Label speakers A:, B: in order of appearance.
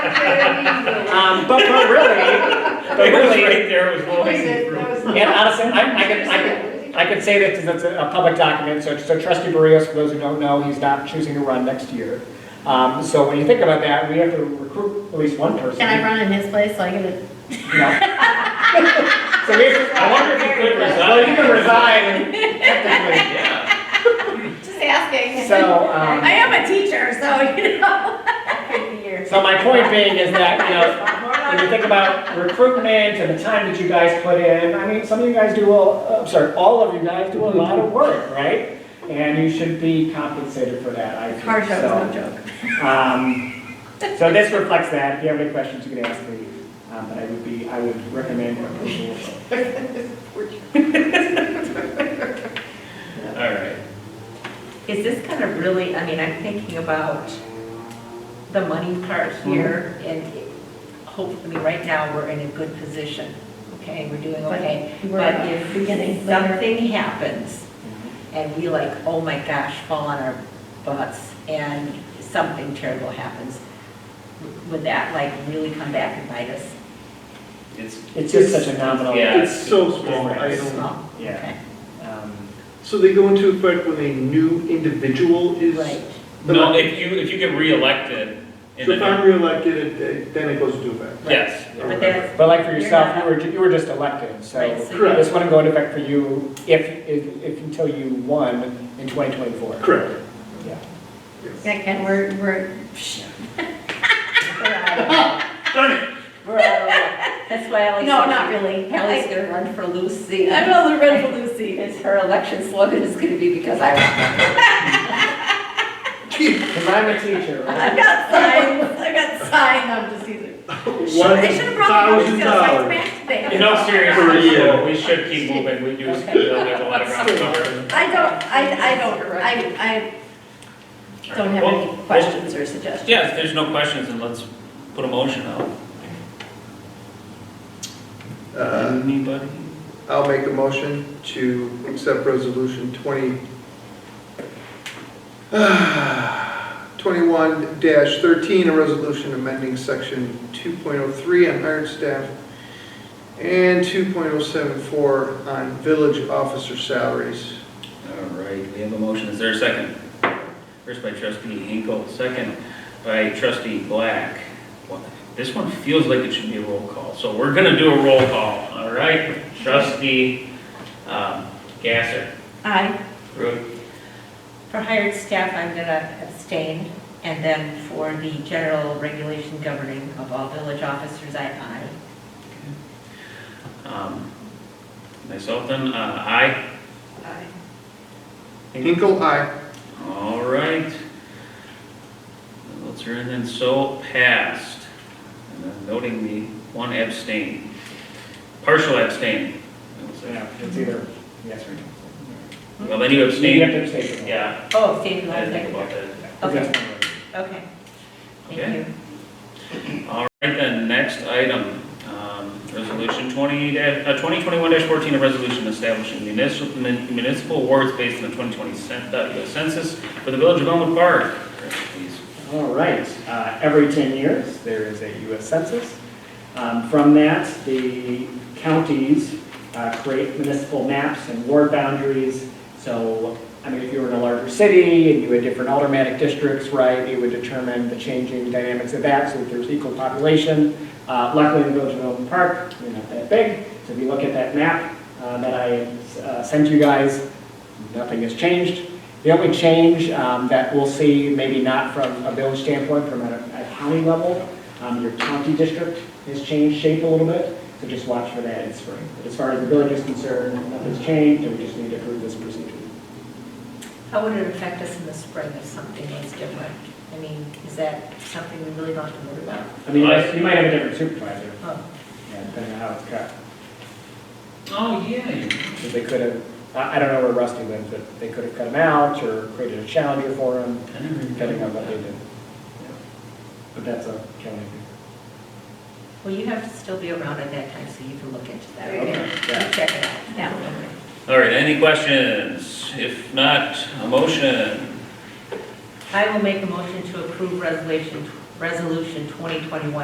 A: Um, but, but really,
B: It
A: but
B: was
A: really,
B: right there, it was low hanging fruit.
A: and honestly, I, I could, I could, I could say that because it's a a public document, so, so trustee Barrios, for those who don't know, he's not choosing to run next year. Um, so when you think about that, we have to recruit at least one person.
C: Can I run in his place so I can?
A: No. So we have to,
B: I wonder if you could
A: well, you can
B: resign.
A: resign technically.
B: Yeah,
C: Just asking.
A: So,
C: I
A: um,
C: am a teacher, so you know.
A: so my point being is that, you know, When you think about recruitment and the time that you guys put in, I mean, some of you guys do, a- I'm sorry, all of you guys do a lot of work, right? And you should be compensated for that, I think.
C: Hard joke,
A: so.
C: no joke.
A: Um, so this reflects that. If you have any questions, you can ask me. Um, but I would be, I would recommend approval.
B: all right.
D: Is this kind of really, I mean, I'm thinking about the money part
C: Mm-hmm.
D: here, and hopefully, right now, we're in a good position, okay, we're doing
C: But
D: okay.
C: we're
D: But if
C: beginning later.
D: something happens, and we like, oh my gosh, fall on our butts, and something terrible happens, would that like really come back and bite us?
B: It's,
A: It's just such a nominal.
B: Yeah.
E: It's so small, I don't,
D: Small?
A: Yeah.
D: Okay.
A: Um,
E: so they go into effect when a new individual is.
D: Right,
E: the-
B: no, if you, if you get reelected in
E: So
B: the
E: if I'm reelected, it- it- then it goes into effect.
B: yes,
D: but that's,
A: But like for yourself, you were, you were just elected, so.
D: right, so
E: Correct.
A: This wouldn't go into effect for you if, if, if until you won in 2024.
E: Correct.
A: Yeah.
E: Yes.
C: Yeah, Ken, we're, we're.
D: we're out of- we're out of luck. That's why I like.
C: No, not really.
D: Hallie's gonna run for Lucy.
C: I'm on the red blue seat.
D: Is her election slogan is gonna be because I want
A: Because I'm a teacher, right?
C: I've got signs, I've got sign on the season. I should have brought my
E: Thousand
C: Boy Scouts
E: dollars.
C: back today.
B: In all
E: For
B: seriousness,
E: you.
B: though, we should keep moving, we do, there's a lot of ground to cover.
C: I don't, I, I don't, I, I don't have
B: Well,
C: any
B: well,
C: questions or suggestions.
B: Yeah, if there's no questions, then let's put a motion out.
E: Uh,
B: Anybody?
E: I'll make a motion to accept resolution 20, 21-13, a resolution amending section 2.03 on hired staff and 2.074 on village officer salaries.
B: All right, we have a motion, is there a second? First by trustee Hinkle, second by trustee Black. Well, This one feels like it should be a roll call, so we're gonna do a roll call, all right? Trustee, um, Gasser,
C: I,
B: Root,
D: For hired staff, I'm gonna abstain, and then for the general regulation governing of all village officers, I aye.
B: um, myself then, uh, aye.
E: Hinkle, aye.
B: All right. Those are in and so passed. And then Noting the one abstain, partial abstain.
A: Yeah, it's either yes or no.
B: Well, then you
A: You have
B: abstain.
A: to abstain from that.
B: Yeah,
D: Oh, abstain,
B: I didn't think about
D: okay,
B: that.
D: okay,
A: Yes.
D: okay.
B: Okay.
D: Thank you.
B: All right, then, next item, um, resolution twenty, da- uh, twenty twenty-one fourteen, a resolution establishing municipal, mun- municipal awards based on the twenty twenty census for the village of Elmwood Park. Please.
A: All right, uh, every 10 years, there is a US Census. Um, From that, the counties uh, create municipal maps and ward boundaries. So, I mean, if you were in a larger city and you had different automatic districts, right, it would determine the changing dynamics of that, so that there's equal population. Uh, Luckily, in the Village of Milton Park, we're not that big, so if you look at that map uh, that I uh, sent you guys, nothing has changed. The only change um, that we'll see, maybe not from a village standpoint, from a a county level, um, your county district has changed shape a little bit, so just watch for that in spring. But as far as the village is concerned, nothing's changed, and we just need to approve this procedure.
D: How would it affect us in the spring if something was different? I mean, is that something we really don't have to worry about?
A: I mean, you might- you might have a different supervisor,
D: Oh,
A: yeah, depending on how it's cut,
B: Oh, yeah.
A: 'Cause they could have, I I don't know where Rusty lives, but they could have cut him out or created a challenger for him, depending on what they did. But that's a county.
D: well, you have to still be around at that time, so you can look into that,
A: Okay,
D: okay?
A: yeah.
D: Check it out.
C: Yeah.
B: All right, any questions? If not, a motion.
D: I will make a motion to approve resolution Resolution 2021